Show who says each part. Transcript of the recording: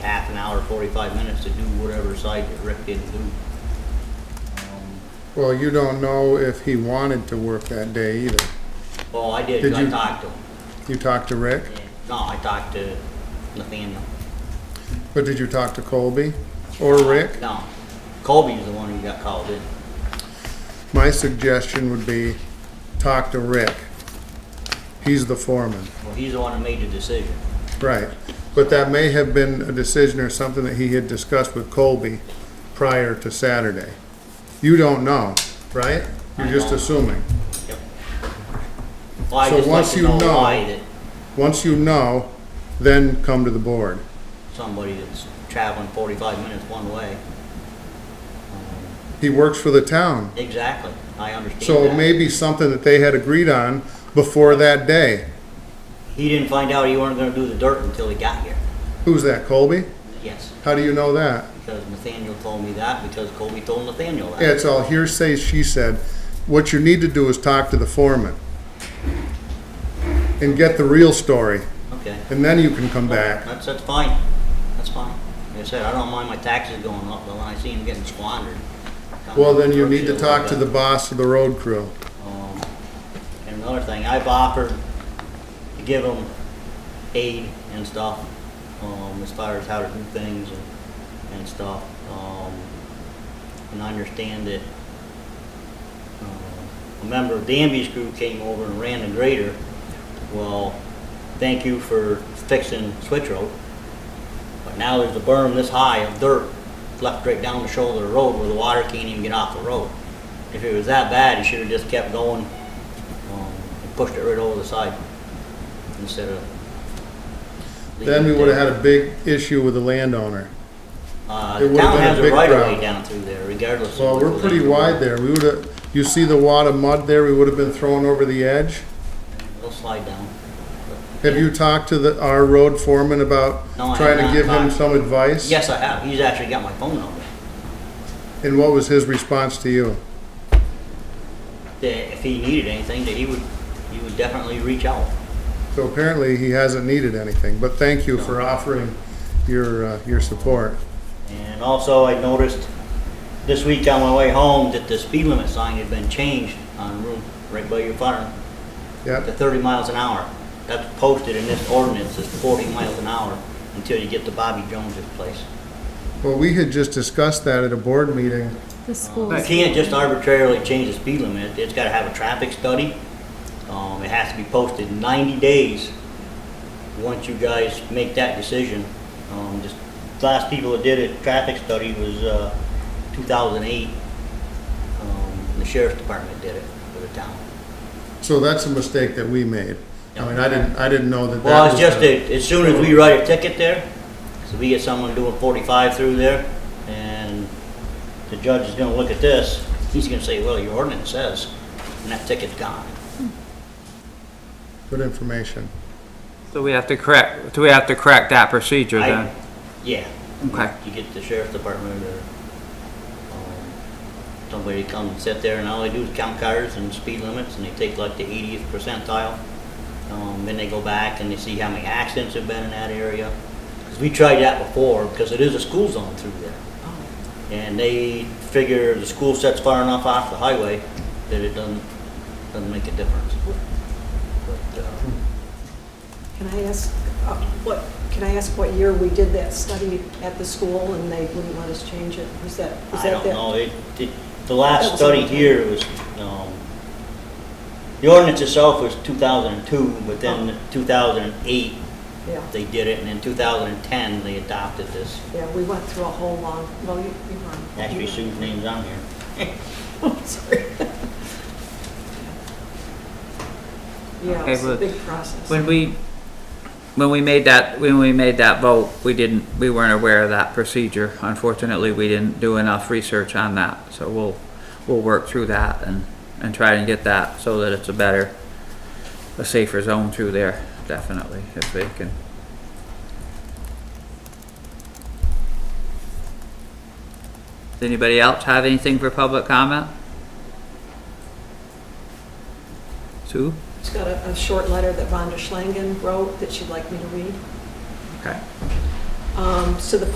Speaker 1: hour, forty-five minutes to do whatever side that Rick didn't do. Um,
Speaker 2: Well, you don't know if he wanted to work that day either.
Speaker 1: Well, I did,
Speaker 2: Did
Speaker 1: I
Speaker 2: you-
Speaker 1: talked to him.
Speaker 2: You talked to Rick,
Speaker 1: Yeah. No, I talked to Nathaniel.
Speaker 2: but did you talk to Colby or Rick?
Speaker 1: No, Colby's the one who got called in.
Speaker 2: My suggestion would be talk to Rick. He's the foreman.
Speaker 1: Well, he's the one who made the decision.
Speaker 2: Right, but that may have been a decision or something that he had discussed with Colby prior to Saturday. You don't know, right? You're
Speaker 1: I
Speaker 2: just
Speaker 1: don't.
Speaker 2: assuming.
Speaker 1: Yep. Well, I
Speaker 2: So
Speaker 1: just like
Speaker 2: once
Speaker 1: to
Speaker 2: you
Speaker 1: know
Speaker 2: know-
Speaker 1: why that
Speaker 2: Once you know, then come to the board.
Speaker 1: somebody that's traveling forty-five minutes one way.
Speaker 2: He works for the town,
Speaker 1: Exactly, I understand
Speaker 2: so
Speaker 1: that.
Speaker 2: it may be something that they had agreed on before that day.
Speaker 1: He didn't find out he weren't gonna do the dirt until he got here.
Speaker 2: Who's that, Colby?
Speaker 1: Yes,
Speaker 2: How do you know that?
Speaker 1: because Nathaniel told me that, because Colby told Nathaniel that.
Speaker 2: Yeah, it's all hearsay, she said. What you need to do is talk to the foreman and get the real story,
Speaker 1: Okay.
Speaker 2: and then you can come back.
Speaker 1: That's, that's fine, that's fine. Like I said, I don't mind my taxes going up, but when I see them getting squandered. I'm
Speaker 2: Well, then you need
Speaker 1: upset a
Speaker 2: to
Speaker 1: little
Speaker 2: talk to
Speaker 1: bit.
Speaker 2: the boss of the road crew.
Speaker 1: Um, And another thing, I've offered to give them aid and stuff, um, as far as how to do things and, and stuff. Um, and I understand that, uh, a member of Danby's crew came over and ran the grader. Well, thank you for fixing Switch Road. But now there's a berm this high of dirt left right down the shoulder of the road where the water can't even get off the road. If it was that bad, he should have just kept going, um, and pushed it right over the side instead of.
Speaker 2: Then we would have had a big issue with the landowner.
Speaker 1: Uh,
Speaker 2: it
Speaker 1: the
Speaker 2: would have
Speaker 1: town
Speaker 2: been a
Speaker 1: has a
Speaker 2: big
Speaker 1: right of way
Speaker 2: problem.
Speaker 1: down through there regardless of.
Speaker 2: Well,
Speaker 1: what
Speaker 2: we're
Speaker 1: the
Speaker 2: pretty
Speaker 1: land-
Speaker 2: wide there. We would have, you see the wad of mud there, we would have been thrown over the edge.
Speaker 1: It'll slide down.
Speaker 2: Have you talked to the, our road foreman about
Speaker 1: No, I have
Speaker 2: trying to
Speaker 1: not
Speaker 2: give him
Speaker 1: talked.
Speaker 2: some advice?
Speaker 1: Yes, I have. He's actually got my phone number.
Speaker 2: And what was his response to you?
Speaker 1: That if he needed anything, that he would, he would definitely reach out.
Speaker 2: So apparently he hasn't needed anything, but thank you for offering your, uh, your support.
Speaker 1: And also, I noticed this week on my way home that the speed limit sign had been changed on Route, right by your farm, to
Speaker 2: Yep,
Speaker 1: thirty miles an hour. That's posted in this ordinance, it's forty miles an hour until you get to Bobby Jones's place.
Speaker 2: well, we had just discussed that at a board meeting.
Speaker 3: The
Speaker 1: You
Speaker 3: schools.
Speaker 1: can't just arbitrarily change the speed limit, it's gotta have a traffic study. Um, it has to be posted ninety days. Once you guys make that decision, um, just, the last people that did a traffic study was, uh, two thousand eight. Um, the sheriff's department did it for the town.
Speaker 2: So that's a mistake that we made. I mean, I didn't, I didn't know that that was.
Speaker 1: Well, it's just
Speaker 2: the-
Speaker 1: that as soon as we write a ticket there, so we get someone doing forty-five through there, and the judge is gonna look at this, he's gonna say, well, your ordinance says, and that ticket's gone.
Speaker 2: Good information.
Speaker 4: So we have to correct, do we have to correct that procedure
Speaker 1: I-
Speaker 4: then?
Speaker 1: Yeah.
Speaker 4: Okay.
Speaker 1: You get the sheriff's department or, um, somebody to come and sit there, and all they do is count cars and speed limits, and they take like the eightieth percentile. Um, then they go back and they see how many accidents have been in that area. 'Cause we tried that before, because it is a school zone through there. And they figure the school sets far enough off the highway that it doesn't, doesn't make a difference. But, uh,
Speaker 5: Can I ask, uh, what, can I ask what year we did that study at the school and they wouldn't let us change it? Was that, was
Speaker 1: I
Speaker 5: that
Speaker 1: don't
Speaker 5: that?
Speaker 1: know, it, it, the
Speaker 5: That
Speaker 1: last
Speaker 5: was
Speaker 1: study
Speaker 5: okay.
Speaker 1: here was, um, the ordinance itself was two thousand and two, but
Speaker 5: Oh.
Speaker 1: then two thousand and eight,
Speaker 5: Yeah,
Speaker 1: they did it, and in two thousand and ten, they adopted this.
Speaker 5: yeah, we went through a whole long, well, you, you were on.
Speaker 1: Actually, Sue's name's on here.
Speaker 5: Sorry. Yeah,
Speaker 4: Okay,
Speaker 5: it's a
Speaker 4: but
Speaker 5: big process.
Speaker 4: When we, when we made that, when we made that vote, we didn't, we weren't aware of that procedure. Unfortunately, we didn't do enough research on that, so we'll, we'll work through that and, and try and get that so that it's a better, a safer zone through there, definitely, if they can. Does anybody else have anything for public comment? Sue?
Speaker 5: She's got a, a short letter that Rhonda Schlangen wrote that she'd like me to read.
Speaker 4: Okay.
Speaker 5: Um, So the